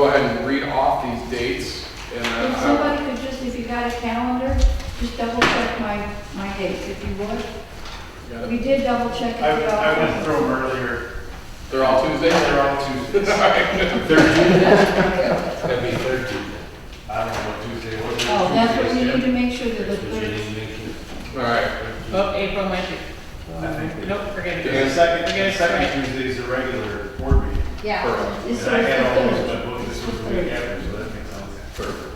Go ahead and read off these dates and uh, then If I somebody could just, if you got a calendar, just double check my, my dates, if you would. will- yeah, We did double check I, at the I went office. through them earlier. They're all Tuesdays? They're all Tuesdays. It's gonna be thirteen. I don't know what Tuesday was. Oh, that's what you need to make sure that the Because you third, didn't make it. All right, Oh, April might be, I think they- nope, forget The it. second, Okay, the it's second Tuesday's a regular board meeting. yeah. Perfect. It's And I had all those, the but both this was the week after, so that makes sense.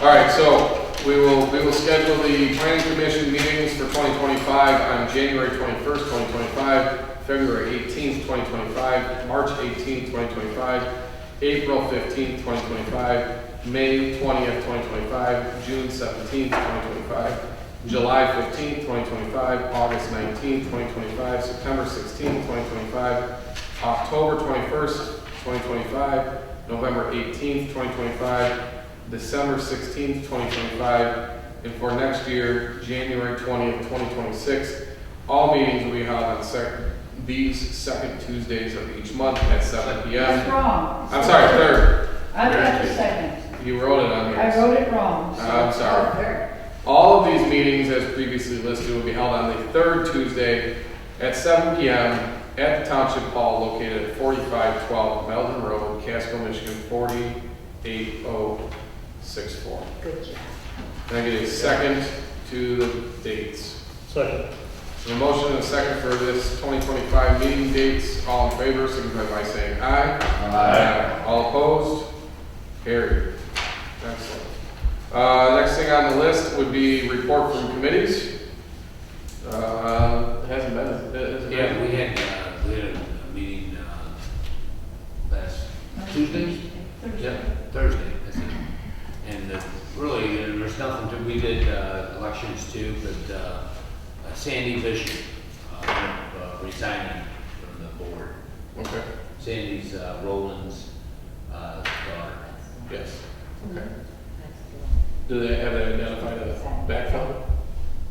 all right, so we will, we will schedule the planning commission meetings for 2025 on January 21st, 2025, February 18th, 2025, March 18th, 2025, April 15th, 2025, May 20th, 2025, June 17th, 2025, July 15th, 2025, August 19th, 2025, September 16th, 2025, October 21st, 2025, November 18th, 2025, December 16th, 2025, and for next year, January 20th, 2026. All meetings will be held on sec, these second Tuesdays of each month at 7 That's PM. wrong. I'm sorry, third, I've got the second. you wrote it on I here. wrote it wrong. so- Uh, I'm sorry. Oh, there. All of these meetings, as previously listed, will be held on the third Tuesday at 7 PM at the Township Hall located at 4512 Melton Road, Casco, Michigan, 48064. Good job. Can I get a second to the dates? Second. A motion and a second for this 2025 meeting dates. All in favor, signify by saying aye. Uh, Aye. All opposed? Carried. Excellent. Uh, Next thing on the list would be report from committees. Uh, It hasn't been, it hasn't been- Yeah, we had, uh, we had a a meeting, uh, last Tuesday? Thursday. Yeah, Thursday, I think. And uh, really, uh, there's nothing to, we did uh, elections too, but uh, Sandy Bishop uh, uh, resigning from the board. Okay, Sandy's uh, Roland's uh, daughter. yes. Okay. Do they, have they identified a backfill?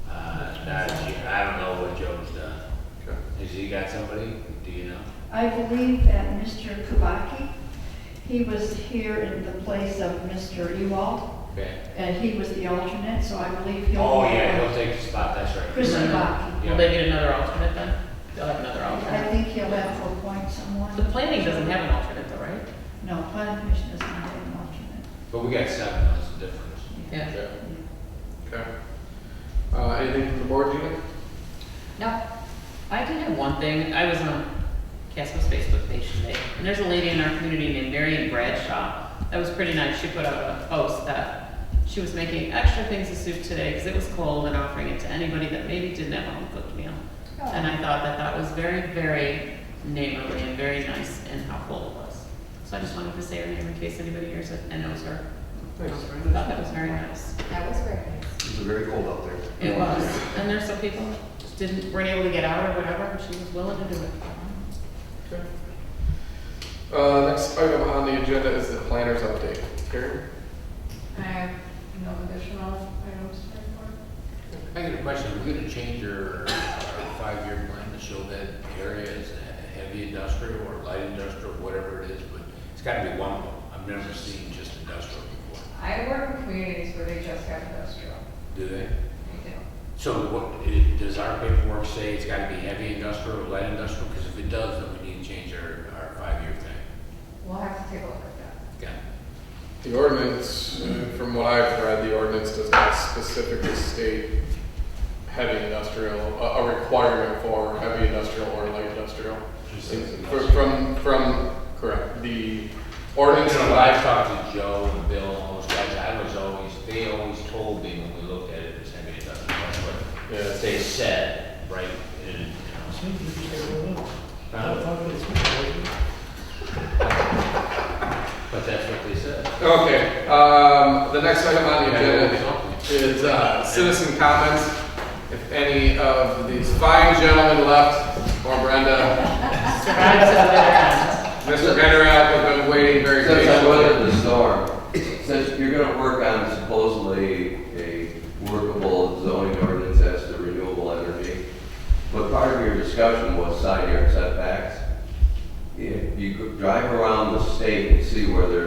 Uh, Not, as yet. I don't know what Joe's done. Okay. Has he got somebody? Do you know? I believe that Mr. Kubaki, he was here in the place of Mr. Ewald, Okay. and he was the alternate, so I believe he'll. Oh, yeah, he'll take the spot, that's right. Chris Kubaki. Yeah. Will they get another alternate then? They'll have another I alternate. think he'll have to appoint The someone. planning doesn't have an alternate though, right? No, planning commission doesn't have an alternate. But we got seven, that's the difference. Yeah. Okay. Okay. Uh, Anything from the board, Gina? No, I did have one thing. I was on Casco's Facebook page today, and there's a lady in our community named Marion Bradshaw. That was pretty nice. She put out a post that she was making extra things of soup today because it was cold and offering it to anybody that maybe didn't have a home cooked meal. And I thought that that was very, very neighborly and very nice and helpful of us. So I just wanted to say her name in case anybody hears it and knows her. I thought that was very nice. That was very nice. It's very cold out there. It was, and there's some people that just didn't, weren't able to get out or whatever, and she was willing to do it. Okay. Uh, Next item on the agenda is the planners update. Karen? I have no additional items to report. I got a question, are we gonna change our, our five-year plan to show that area is a heavy industrial or light industrial, whatever it is, but it's gotta be one of them. I've never seen just industrial before, I work in communities where they just have industrial. do they? They do. So what, i- does our paperwork say it's gotta be heavy industrial or light industrial? Because if it does, then we need to change our, our five-year thing. We'll have to take a look at that. Okay. The ordinance, uh, from what I've read, the ordinance does not specifically state heavy industrial, a, a requirement for heavy industrial or light industrial. Just says Fr- industrial. From, from, correct, the You ordinance know, that when I I, talked to Joe and Bill and all those guys, I was always, they always told me when we looked at it, it was heavy industrial, that's Yeah. what they said, right? And, you know, uh, But that's what they said. okay, um, the next item on the agenda Something. is, uh, citizen comments. If any of these fine gentlemen left, or Brenda, Survived to the other Mr. end. Vanderat, have been waiting very Since I patiently. weathered the storm, since you're gonna work on supposedly a workable zoning ordinance as to renewable energy, but part of your discussion was side yard setbacks. If you could drive around the state and see where there